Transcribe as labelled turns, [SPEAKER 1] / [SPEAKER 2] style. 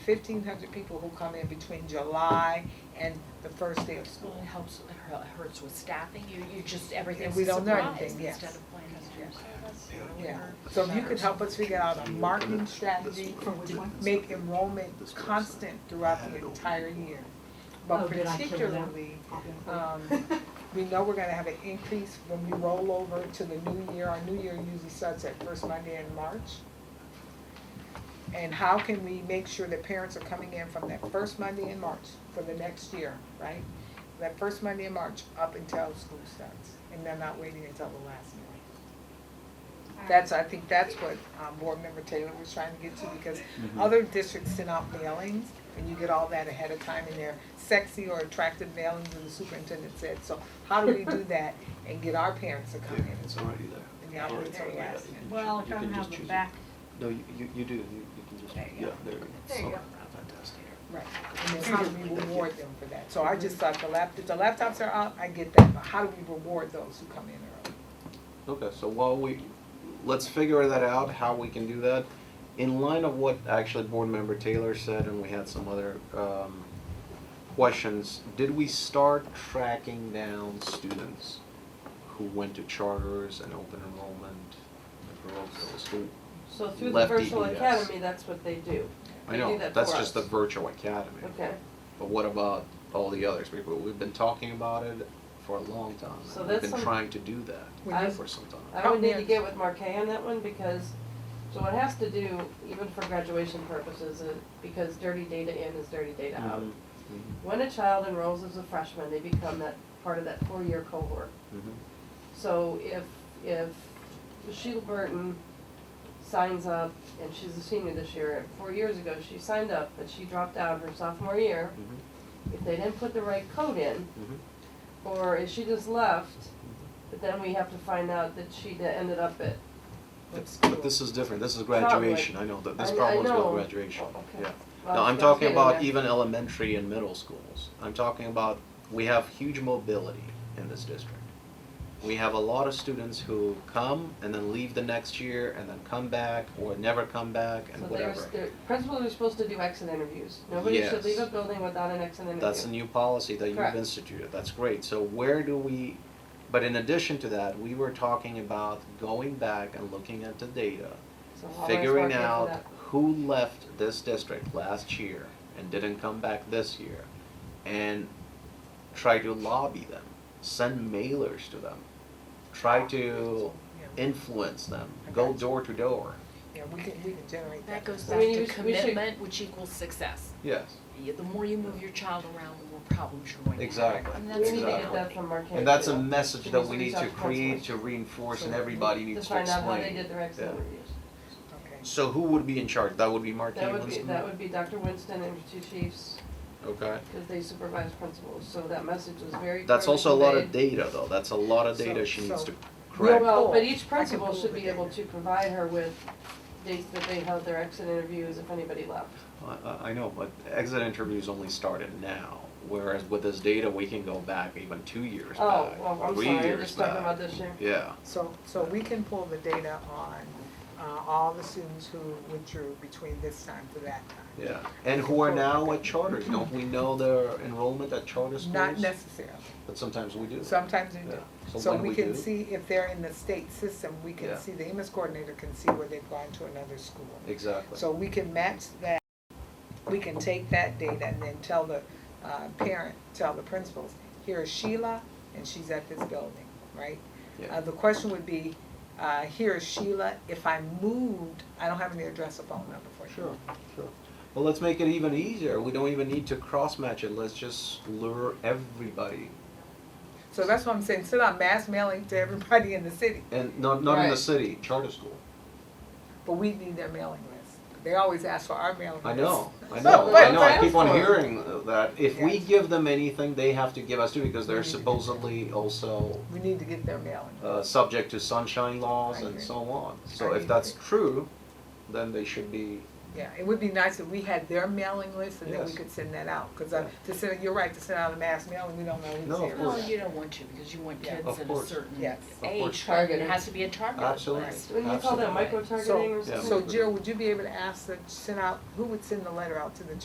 [SPEAKER 1] fifteen hundred people who come in between July and the first day of
[SPEAKER 2] Well,
[SPEAKER 1] school.
[SPEAKER 2] it helps, it hu- hurts with staffing, you, you just, everything's
[SPEAKER 1] we
[SPEAKER 2] a
[SPEAKER 1] don't know
[SPEAKER 2] surprise
[SPEAKER 1] anything, yes.
[SPEAKER 2] instead of planning.
[SPEAKER 1] Yes.
[SPEAKER 2] Earlier
[SPEAKER 1] Yeah, so if you could help us figure out a marketing strategy to make enrollment constant throughout the entire year. But
[SPEAKER 3] Oh, did I kill them?
[SPEAKER 1] particularly, um, we know we're gonna have an increase when we roll over to the new year, our new year usually starts at first Monday in March. And how can we make sure that parents are coming in from that first Monday in March for the next year, right? That first Monday in March up until school starts, and they're not waiting until the last minute. That's, I think that's what um, Board Member Taylor was trying to get to, because
[SPEAKER 4] Mm-hmm.
[SPEAKER 1] other districts send out mailings, and you get all that ahead of time, and they're sexy or attractive mailings, and the superintendent said, so how do we do that and get our parents to come in?
[SPEAKER 4] It's already there.
[SPEAKER 1] And the operator asked me.
[SPEAKER 5] Well,
[SPEAKER 4] You
[SPEAKER 5] don't
[SPEAKER 4] can
[SPEAKER 5] have
[SPEAKER 4] just choose
[SPEAKER 5] a
[SPEAKER 4] it.
[SPEAKER 5] back,
[SPEAKER 4] No, you, you, you do, you, you can just,
[SPEAKER 5] There you
[SPEAKER 4] yeah,
[SPEAKER 5] go.
[SPEAKER 4] there you go.
[SPEAKER 5] There you
[SPEAKER 4] Okay,
[SPEAKER 5] go.
[SPEAKER 4] Fantastic.
[SPEAKER 1] Right, and then how do we reward them for that? So I
[SPEAKER 4] Mm-hmm.
[SPEAKER 1] just thought the lap, if the laptops are out, I get that, but how do we reward those who come in early?
[SPEAKER 4] Okay, so while we, let's figure that out, how we can do that. In line of what actually Board Member Taylor said, and we had some other um, questions, did we start tracking down students who went to charters and open enrollment at Baroque School?
[SPEAKER 6] So through the
[SPEAKER 4] Lefty
[SPEAKER 6] virtual
[SPEAKER 4] ES.
[SPEAKER 6] academy, that's what they do.
[SPEAKER 4] I
[SPEAKER 6] They do
[SPEAKER 4] know,
[SPEAKER 6] that
[SPEAKER 4] that's
[SPEAKER 6] for
[SPEAKER 4] just the
[SPEAKER 6] us.
[SPEAKER 4] virtual academy.
[SPEAKER 6] Okay,
[SPEAKER 4] But what about all the others? We- We've been talking about it for a long time. and
[SPEAKER 6] So that's
[SPEAKER 4] We've been
[SPEAKER 6] some-
[SPEAKER 4] trying to do that
[SPEAKER 1] We
[SPEAKER 6] need-
[SPEAKER 4] for some time.
[SPEAKER 6] I would need to
[SPEAKER 1] Yes.
[SPEAKER 6] get with Marquet on that one because, so it has to do, even for graduation purposes, uh, because dirty data in is dirty data out.
[SPEAKER 4] Mhm,
[SPEAKER 6] When a child enrolls as a freshman, they become that, part of that four-year cohort.
[SPEAKER 4] mhm,
[SPEAKER 6] So if, if Sheila Burton signs up, and she's a senior this year, four years ago, she signed up, but she dropped out her sophomore year.
[SPEAKER 4] mhm,
[SPEAKER 6] If they didn't put the right code in,
[SPEAKER 4] mhm.
[SPEAKER 6] or if she just left, but then we have to find out that she da- ended up at. what
[SPEAKER 4] But-
[SPEAKER 6] school.
[SPEAKER 4] But this is different, this is graduation, I know, that this
[SPEAKER 6] I- I
[SPEAKER 4] problem's about
[SPEAKER 6] know.
[SPEAKER 4] graduation,
[SPEAKER 6] Oh, okay.
[SPEAKER 4] yeah.
[SPEAKER 6] Well,
[SPEAKER 4] No, I'm
[SPEAKER 6] that's what
[SPEAKER 4] talking
[SPEAKER 6] getting
[SPEAKER 4] about
[SPEAKER 6] at.
[SPEAKER 4] even elementary and middle schools. I'm talking about, we have huge mobility in this district. We have a lot of students who come and then leave the next year and then come back or never come back
[SPEAKER 6] So
[SPEAKER 4] and
[SPEAKER 6] they're,
[SPEAKER 4] whatever.
[SPEAKER 6] they're, principals are supposed to do exit interviews. Nobody should
[SPEAKER 4] Yes.
[SPEAKER 6] leave a building without an exit interview.
[SPEAKER 4] That's a new policy that you've
[SPEAKER 6] Correct.
[SPEAKER 4] instituted, that's great, so where do we, but in addition to that, we were talking about going back and looking at the data,
[SPEAKER 6] So I'll always
[SPEAKER 4] figuring
[SPEAKER 6] mark it for
[SPEAKER 4] out
[SPEAKER 6] that.
[SPEAKER 4] who left this district last year and didn't come back this year, and try to lobby them, send mailers to them, try to
[SPEAKER 1] Yeah.
[SPEAKER 4] influence them, go
[SPEAKER 1] Okay.
[SPEAKER 4] door to door,
[SPEAKER 1] Yeah, we can, we can generate that.
[SPEAKER 2] That goes
[SPEAKER 6] I
[SPEAKER 2] back
[SPEAKER 6] mean, you
[SPEAKER 2] to
[SPEAKER 6] should- we should-
[SPEAKER 2] commitment, which equals success.
[SPEAKER 4] yes,
[SPEAKER 2] Yeah, The more you move your child around, the more problems you're going to have.
[SPEAKER 4] exactly, exactly.
[SPEAKER 2] And
[SPEAKER 6] We
[SPEAKER 2] that's
[SPEAKER 6] need to get
[SPEAKER 2] reality.
[SPEAKER 6] that from Marquette.
[SPEAKER 4] And that's
[SPEAKER 6] too.
[SPEAKER 4] a message that we need
[SPEAKER 6] Because
[SPEAKER 4] to
[SPEAKER 6] it's
[SPEAKER 4] create, to
[SPEAKER 6] consequences.
[SPEAKER 4] reinforce, and
[SPEAKER 6] So
[SPEAKER 4] everybody needs to
[SPEAKER 6] find out how
[SPEAKER 4] explain.
[SPEAKER 6] they did their exit
[SPEAKER 4] Yeah.
[SPEAKER 6] interviews.
[SPEAKER 1] Okay.
[SPEAKER 4] So who would be in charge? That would be Marquis
[SPEAKER 6] That would be,
[SPEAKER 4] Winston?
[SPEAKER 6] that would be Dr. Winston and her two chiefs,
[SPEAKER 4] Okay.
[SPEAKER 6] because they supervise principals, so that message was very clearly
[SPEAKER 4] That's also a lot of
[SPEAKER 6] conveyed.
[SPEAKER 4] data though. That's a lot of data
[SPEAKER 1] So-
[SPEAKER 4] she needs
[SPEAKER 1] so-
[SPEAKER 4] to correct.
[SPEAKER 6] Well,
[SPEAKER 1] pull.
[SPEAKER 6] but
[SPEAKER 1] I
[SPEAKER 6] each
[SPEAKER 1] can
[SPEAKER 6] principal
[SPEAKER 1] pull
[SPEAKER 6] should
[SPEAKER 1] the
[SPEAKER 6] be able
[SPEAKER 1] data.
[SPEAKER 6] to provide her with dates that they held their exit interviews if anybody left.
[SPEAKER 4] I- I, I know, but exit interviews only started now. Whereas with this data, we can go back even two years
[SPEAKER 6] Oh,
[SPEAKER 4] back,
[SPEAKER 6] well, I'm
[SPEAKER 4] three
[SPEAKER 6] sorry, I'm
[SPEAKER 4] years
[SPEAKER 6] just talking
[SPEAKER 4] back.
[SPEAKER 6] about this year.
[SPEAKER 4] Yeah.
[SPEAKER 1] So, so we can pull the data on, uh, all the students who withdrew between this time to that time?
[SPEAKER 4] Yeah. And who are now at charters? Don't we know their enrollment at charter schools?
[SPEAKER 1] Not necessarily,
[SPEAKER 4] But sometimes we do.
[SPEAKER 1] sometimes they
[SPEAKER 4] Yeah.
[SPEAKER 1] do.
[SPEAKER 4] So
[SPEAKER 1] So
[SPEAKER 4] when
[SPEAKER 1] we
[SPEAKER 4] we
[SPEAKER 1] can
[SPEAKER 4] do-
[SPEAKER 1] see if they're in the state system, we
[SPEAKER 4] Yeah.
[SPEAKER 1] can see, the MS coordinator can see where they've gone to another school.
[SPEAKER 4] Exactly.
[SPEAKER 1] So we can match that, we can take that data and then tell the, uh, parent, tell the principals, here is Sheila, and she's at this building, right?
[SPEAKER 4] Yeah.
[SPEAKER 1] Uh, the question would be, uh, here is Sheila, if I moved, I don't have any address or phone number for you.
[SPEAKER 4] Sure, sure. Well, let's make it even easier. We don't even need to cross match it. Let's just lure everybody.
[SPEAKER 1] So that's what I'm saying, send out mass mailing to everybody in the city,
[SPEAKER 4] And not, not in the
[SPEAKER 6] Right.
[SPEAKER 4] city, charter school.
[SPEAKER 1] but we need their mailing list. They always ask for our mailing list.
[SPEAKER 4] I know, I
[SPEAKER 1] But-
[SPEAKER 4] know, I
[SPEAKER 1] but-
[SPEAKER 4] know. I
[SPEAKER 6] but-
[SPEAKER 4] keep on hearing that. If we
[SPEAKER 1] Yes.
[SPEAKER 4] give them anything, they have to give us too because
[SPEAKER 1] We
[SPEAKER 4] they're
[SPEAKER 1] need to give
[SPEAKER 4] supposedly also
[SPEAKER 1] We need to get their mailing.
[SPEAKER 4] uh, subject to sunshine laws
[SPEAKER 1] I
[SPEAKER 4] and
[SPEAKER 1] agree.
[SPEAKER 4] so on.
[SPEAKER 1] I
[SPEAKER 4] So if
[SPEAKER 1] agree.
[SPEAKER 4] that's true, then they should be
[SPEAKER 1] Yeah, it would be nice if we had their mailing list and then we
[SPEAKER 4] Yes.
[SPEAKER 1] could send that out, cause uh, to send, you're right, to send out a mass mailing, we don't know who's
[SPEAKER 4] No, of
[SPEAKER 1] here.
[SPEAKER 4] course.
[SPEAKER 2] Well,
[SPEAKER 6] Oh,
[SPEAKER 2] you don't want to, because you want
[SPEAKER 1] Yeah.
[SPEAKER 2] kids
[SPEAKER 4] Of
[SPEAKER 2] at a
[SPEAKER 4] course.
[SPEAKER 2] certain
[SPEAKER 1] Yes.
[SPEAKER 2] age,
[SPEAKER 1] Of
[SPEAKER 6] course.
[SPEAKER 2] but it has to be a target list.
[SPEAKER 4] Absolutely.
[SPEAKER 6] Wouldn't you call that
[SPEAKER 4] Absolutely.
[SPEAKER 6] micro targeting or
[SPEAKER 4] So- yeah.
[SPEAKER 6] something?
[SPEAKER 1] So Jill, would you be able to ask the, send out, who would send the letter out to the